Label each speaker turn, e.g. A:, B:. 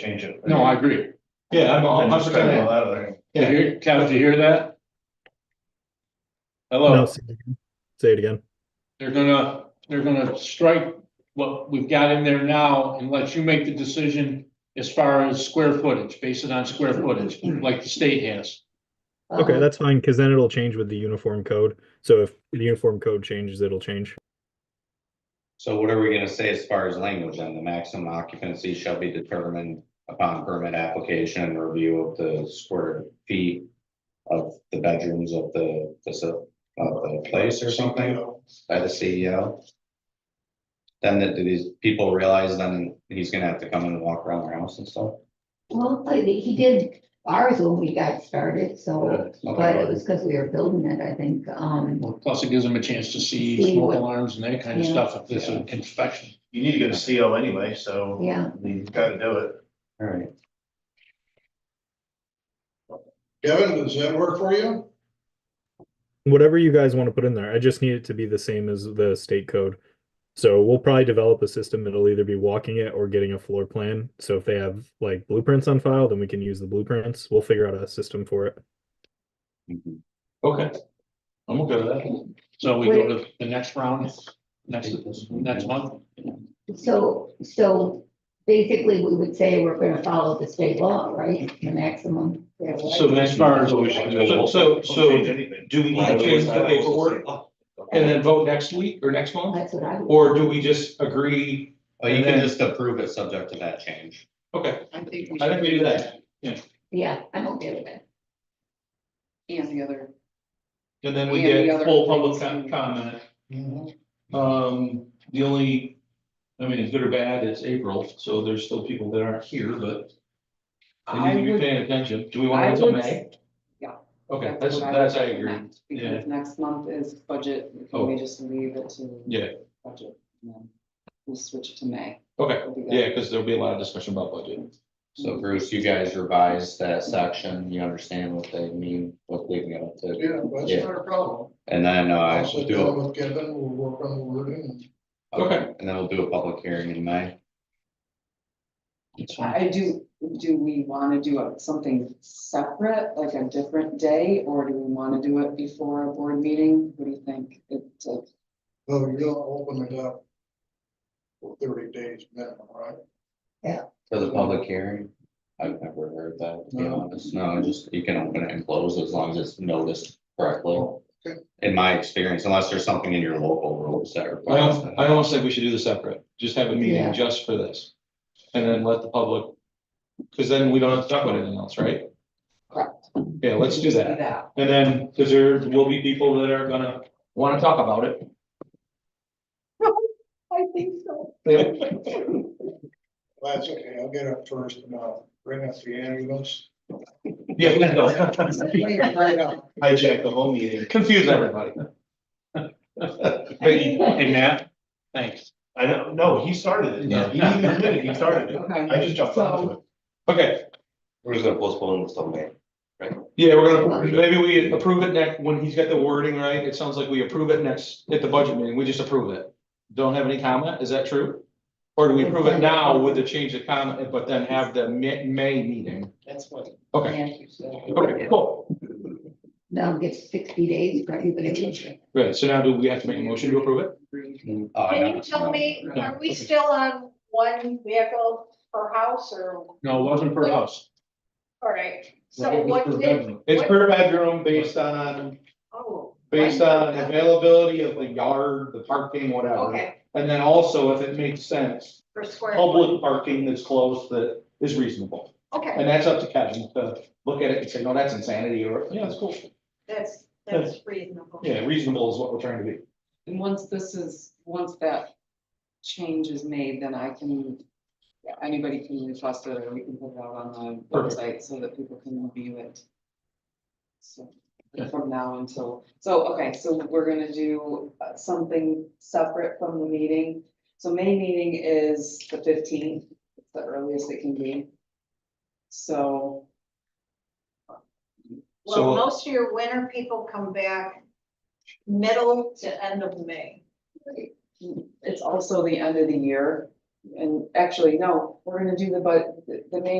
A: change it.
B: No, I agree.
A: Yeah, I'm
B: I'm
A: I'm
B: just
A: just kind
B: kinda-
A: of out of there.
B: You hear, Cal, did you hear that?
C: No,
B: Hello,
C: say it again. Say it again.
B: they're gonna, they're gonna strike what we've got in there now and let you make the decision as far as square footage, based it on square footage, like the state has.
C: Okay, that's fine because then it'll change with the uniform code. So if the uniform code changes, it'll change.
D: So what are we gonna say as far as language then? The maximum occupancy shall be determined upon permit application and review of the square feet. Of the bedrooms of the, faci- of the place or something by the CEO. Then that do these people realize then he's gonna have to come and walk around their house and stuff.
E: Well, but he he did ours when we got started, so, but it
D: Okay.
E: was because we were building it, I think, um,
B: Plus it gives them a chance to see
E: See
B: smoke
E: what-
B: alarms and that kind of
E: Yeah.
B: stuff if there's an inspection.
A: You need to get a CO anyway, so.
E: yeah.
A: You've got to do it.
D: All right.
F: Kevin, does that work for you?
C: Whatever you guys want to put in there, I just need it to be the same as the state code. So we'll probably develop a system. It'll either be walking it or getting a floor plan. So if they have like blueprints on file, then we can use the blueprints. We'll figure out a system for it.
D: Mhm.
B: Okay. I'm okay with that. So we go to the next round, next, next month?
E: So, so basically, we would say we're gonna follow the state law, right, the maximum.
G: So as far as, so, so,
A: Don't change
G: so
A: anything.
G: do we change the paperwork and then vote next week or next month?
E: That's what I would.
G: Or do we just agree?
D: Well, Oh, you can
G: And then-
D: just approve it subject to that change.
G: Okay,
H: I think we
G: I
H: should,
G: think we do that.
E: Yeah, I'm okay with that.
H: and the other.
G: And then we
H: And the
G: get
H: other
G: full public com-
H: things.
G: comment. Um, the only, I mean, as good or bad, it's April, so there's still people that aren't here, but they
H: I
G: need to be
H: would,
G: paying attention. Do we want
H: I
G: to until
H: would.
G: May?
H: yeah.
G: Okay,
H: what
G: that's,
H: would
G: that's, I agree.
H: recommend, Because next month is budget,
G: Oh.
H: can we just leave it to?
G: Yeah.
H: Budget, and then we'll switch it to May.
G: Okay,
H: We'll do that.
G: yeah, because there'll be a lot of discussion about budget.
D: So Bruce, you guys revise that section. You understand what they mean, what leaving it up to.
F: Yeah, that's
D: Yeah.
F: not a problem.
D: And then uh,
F: I'll sit
D: do a
F: down with Kevin, we'll work on the wording.
D: Okay, and then we'll do a public hearing in May.
B: That's fine.
H: I I do, do we want to do a- something separate, like a different day, or do we want to do it before a board meeting? What do you think? uh, It's a
F: So oh, you don't open it up for thirty days minimum, right?
D: For the public hearing, I've never heard that, to be
F: No.
D: honest, no, just, you can open it and close as long as it's noticed correctly.
F: okay.
D: In my experience, unless there's something in your local rules that
G: I
D: requires
G: don't, I
D: that.
G: almost think we should do this separate, just have a meeting
E: Yeah.
G: just for this. And then let the public, because then we don't have to talk about anything else, right?
H: Correct.
G: Yeah, let's do that.
H: that.
G: And then, because there will be people that are gonna want to talk about it.
H: I think so.
F: Well, That's okay, I'll get up first and I'll bring up the ambulance.
G: Yeah, we know.
F: Bring it right up.
A: Hijack the whole meeting.
G: confuse everybody.
B: Hey, Matt, thanks.
A: I don't, no, he started it.
G: No.
A: He didn't even admit it. He started it.
H: Okay.
A: I just jumped onto it.
G: Okay,
D: We're just gonna postpone this till May.
G: yeah, we're gonna, maybe we approve it next, when he's got the wording right, it sounds like we approve it next, at the budget meeting, we just approve it. Don't have any comment, is that true? Or do we approve it now with the change of comment, but then have the May, May meeting?
H: That's what.
G: Okay. Okay, cool.
E: That'll give sixty days for everybody. to-
G: Right, so now do we have to make a motion to approve it?
D: Oh,
I: Can you tell me, are we still on one vehicle per house or,
B: No, it wasn't per house.
I: all right,
B: Right, it
I: so
B: was
I: what
B: per
I: did?
B: bedroom.
G: It's per bedroom based on,
I: Oh,
G: based on availability of the yard, the parking, whatever.
I: okay,
G: And then also if it makes sense,
I: per square.
G: public parking that's close that is reasonable.
I: Okay,
G: And that's up to Kevin to look at it and say, no, that's insanity or, yeah, that's cool.
I: that's, that's reasonable.
G: Yeah, reasonable is what we're trying to be.
H: And once this is, once that change is made, then I can, yeah, anybody can request it, or we can put it out on the
G: Perfect.
H: website so that people can view it. So,
B: Yeah.
H: from now until, so, okay, so we're gonna do uh, something separate from the meeting. So May meeting is the fifteenth, it's the earliest it can be. So,
G: So-
I: Well, most of your winter people come back middle to end of May.
H: it's also the end of the year, and actually, no, we're gonna do the, but, the main